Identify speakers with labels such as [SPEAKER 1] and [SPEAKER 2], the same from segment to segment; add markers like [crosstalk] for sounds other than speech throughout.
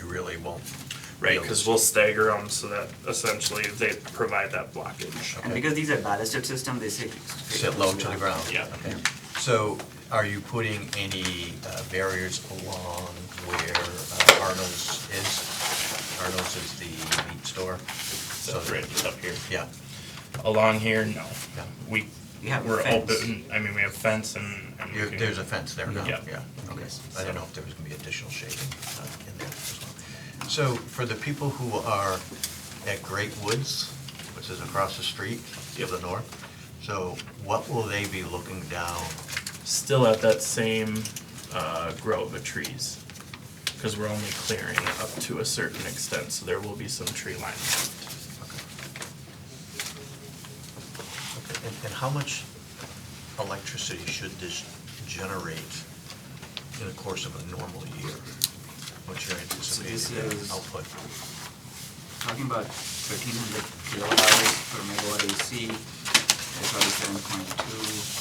[SPEAKER 1] they won't.
[SPEAKER 2] Right, because we'll stagger them so that essentially they provide that blockage.
[SPEAKER 3] And because these are ballasted system, they sit.
[SPEAKER 1] Sit low to the ground.
[SPEAKER 2] Yeah. Mm-hmm.
[SPEAKER 1] Okay. So are you putting any uh, barriers along where uh, Arnold's is? Arnold's is the meat store. So
[SPEAKER 2] Right, just up here.
[SPEAKER 1] Yeah,
[SPEAKER 2] Mm-hmm. Along here, no.
[SPEAKER 1] Yeah.
[SPEAKER 2] We,
[SPEAKER 3] You have a
[SPEAKER 2] we're
[SPEAKER 3] fence.
[SPEAKER 2] open, I mean, we have fence and. and we
[SPEAKER 1] There-
[SPEAKER 2] can-
[SPEAKER 1] there's a fence there now,
[SPEAKER 2] Yeah.
[SPEAKER 1] yeah. Okay.
[SPEAKER 3] Yes.
[SPEAKER 1] I don't know if there was gonna be additional shading uh, in there as well. So for the people who are at Great Woods, which is across the street to the north, so what will they be looking down
[SPEAKER 2] Still at that same uh, grove of trees. Because we're only clearing up to a certain extent, so there will be some tree line. left.
[SPEAKER 1] Okay, And, and how much electricity should this generate in the course of a normal year? What's your anticipated
[SPEAKER 3] is-
[SPEAKER 1] output?
[SPEAKER 3] Talking about thirteen hundred kilowatt hours per megawatt AC, that's probably seven point two.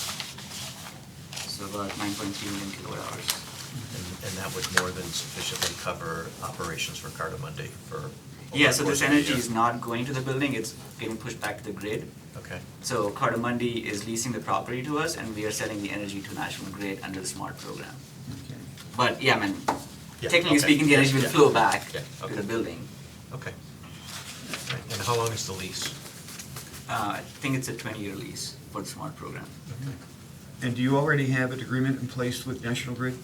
[SPEAKER 3] So about nine point three million kilowatt hours.
[SPEAKER 1] And, and that would more than sufficiently cover operations for Cardamundi for? over
[SPEAKER 3] Yeah,
[SPEAKER 1] the
[SPEAKER 3] so
[SPEAKER 1] course
[SPEAKER 3] this
[SPEAKER 1] of the
[SPEAKER 3] energy
[SPEAKER 1] year?
[SPEAKER 3] is not going to the building, it's getting pushed back to the grid.
[SPEAKER 1] Okay,
[SPEAKER 3] So Cardamundi is leasing the property to us and we are selling the energy to National Grid under the SMART program. But yeah, I mean,
[SPEAKER 1] Yeah,
[SPEAKER 3] technically
[SPEAKER 1] okay.
[SPEAKER 3] speaking, the energy will
[SPEAKER 1] Yeah.
[SPEAKER 3] flow back
[SPEAKER 1] Yeah,
[SPEAKER 3] to
[SPEAKER 1] okay.
[SPEAKER 3] the building.
[SPEAKER 1] okay. Right, And how long is the lease?
[SPEAKER 3] Uh, I think it's a twenty-year lease for the SMART program.
[SPEAKER 4] And do you already have an agreement in place with National Grid?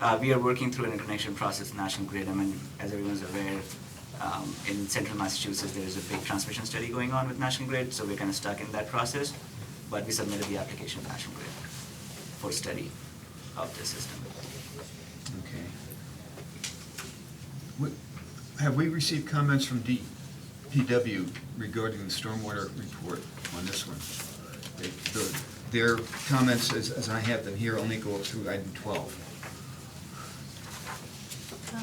[SPEAKER 3] Uh, we are working through an interconnection process, with National Grid. I mean, as everyone's aware, um, in central Massachusetts, there is a big transmission study going on with National Grid, so we're kind of stuck in that process. But we submitted the application to National Grid for study of the system.
[SPEAKER 4] Okay. What- Have we received comments from D- DW regarding the stormwater report on this one? They- the- Their comments, as as I have them here, only go up through item 12.
[SPEAKER 5] Uh,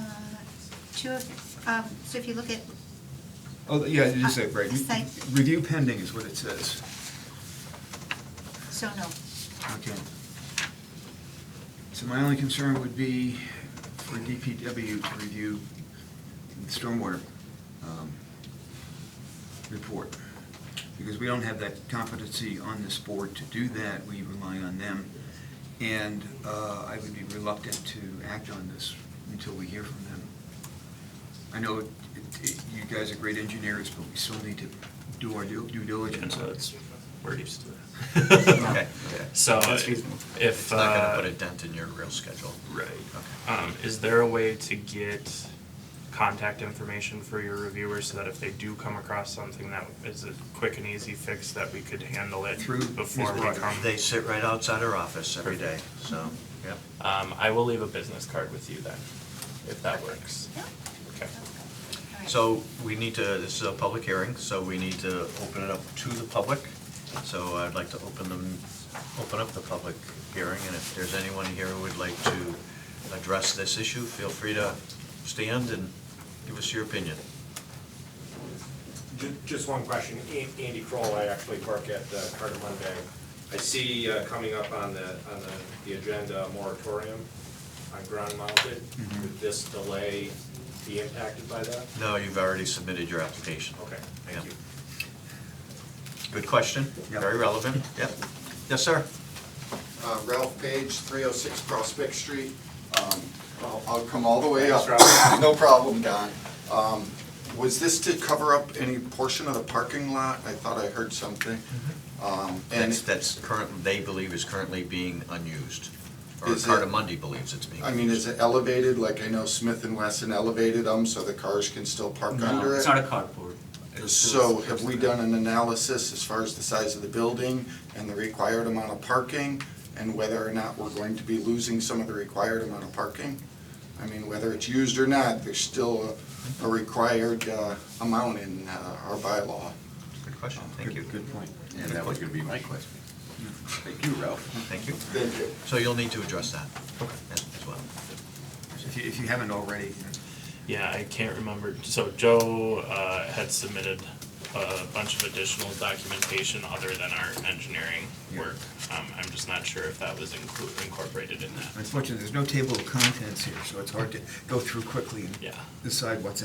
[SPEAKER 5] Two of, um, so if you look at,
[SPEAKER 4] Oh, yeah, it is that, right?
[SPEAKER 5] It's like-
[SPEAKER 4] Review pending is what it says.
[SPEAKER 5] so no,
[SPEAKER 4] Okay. So my only concern would be for DPW to review the stormwater um, report, because we don't have that competency on this board to do that, we rely on them. And uh, I would be reluctant to act on this until we hear from them. I know it- it- you guys are great engineers, but we still need to do our due due
[SPEAKER 2] And
[SPEAKER 4] diligence.
[SPEAKER 2] so it's, we're used to that.
[SPEAKER 1] [laughs] Okay.
[SPEAKER 2] So
[SPEAKER 3] That's reasonable.
[SPEAKER 2] if.
[SPEAKER 1] It's not
[SPEAKER 2] uh,
[SPEAKER 1] gonna put a dent in your real schedule.
[SPEAKER 2] Right.
[SPEAKER 1] Okay.
[SPEAKER 2] Um, is there a way to get contact information for your reviewers so that if they do come across something that is a quick and easy fix that we could handle it
[SPEAKER 4] Through
[SPEAKER 2] before we
[SPEAKER 4] Mr.
[SPEAKER 2] come?
[SPEAKER 1] They sit right outside our office every day, so, yep.
[SPEAKER 2] Um, I will leave a business card with you then, if that works.
[SPEAKER 5] no?
[SPEAKER 2] Okay.
[SPEAKER 5] All right.
[SPEAKER 1] So we need to, this is a public hearing, so we need to open it up to the public. So I'd like to open them, open up the public hearing, and if there's anyone here who would like to address this issue, feel free to stand and give us your opinion.
[SPEAKER 6] Ju- Just one question. An- Andy Kroll, I actually work at uh, Carter Monday. I see uh, coming up on the, on the, the agenda, a moratorium on ground mounted. Would this delay be impacted by that?
[SPEAKER 1] No, you've already submitted your application.
[SPEAKER 6] Okay,
[SPEAKER 1] Yeah.
[SPEAKER 6] thank you.
[SPEAKER 1] Good question,
[SPEAKER 4] Yeah.
[SPEAKER 1] very relevant, yep. Yes, sir?
[SPEAKER 7] Uh, Ralph Page, 306 Prospect Street. Um, I'll I'll come all the way up.
[SPEAKER 6] Thanks,
[SPEAKER 7] [laughs] No problem, Don. Um, Was this to cover up any portion of the parking lot? I thought I heard something. Um, And,
[SPEAKER 1] That's, that's current, they believe is currently being unused. Or
[SPEAKER 7] Is it-
[SPEAKER 1] Cardamundi believes it's being.
[SPEAKER 7] I mean, is it elevated, like I know Smith and Wesson elevated them so the cars can still park
[SPEAKER 3] No,
[SPEAKER 7] under
[SPEAKER 3] it's
[SPEAKER 7] it?
[SPEAKER 3] not a carport. It's
[SPEAKER 7] So
[SPEAKER 3] just-
[SPEAKER 7] have we done an analysis as far as the size of the building and the required amount of parking? And whether or not we're going to be losing some of the required amount of parking? I mean, whether it's used or not, there's still a a required uh, amount in uh, our bylaw.
[SPEAKER 1] Good question, thank you.
[SPEAKER 4] Good- Good point.
[SPEAKER 8] And that was gonna be my question. Thank you, Ralph.
[SPEAKER 1] Thank you.
[SPEAKER 7] Thank you.
[SPEAKER 1] So you'll need to address that as as well.
[SPEAKER 4] If you- if you haven't already,
[SPEAKER 2] Yeah, I can't remember. So Joe, uh, had submitted a bunch of additional documentation other than our engineering
[SPEAKER 4] Yeah.
[SPEAKER 2] work. Um, I'm just not sure if that was inclu- incorporated in that.
[SPEAKER 4] Unfortunately, there's no table of contents here, so it's hard to go through quickly and
[SPEAKER 2] Yeah.
[SPEAKER 4] decide what's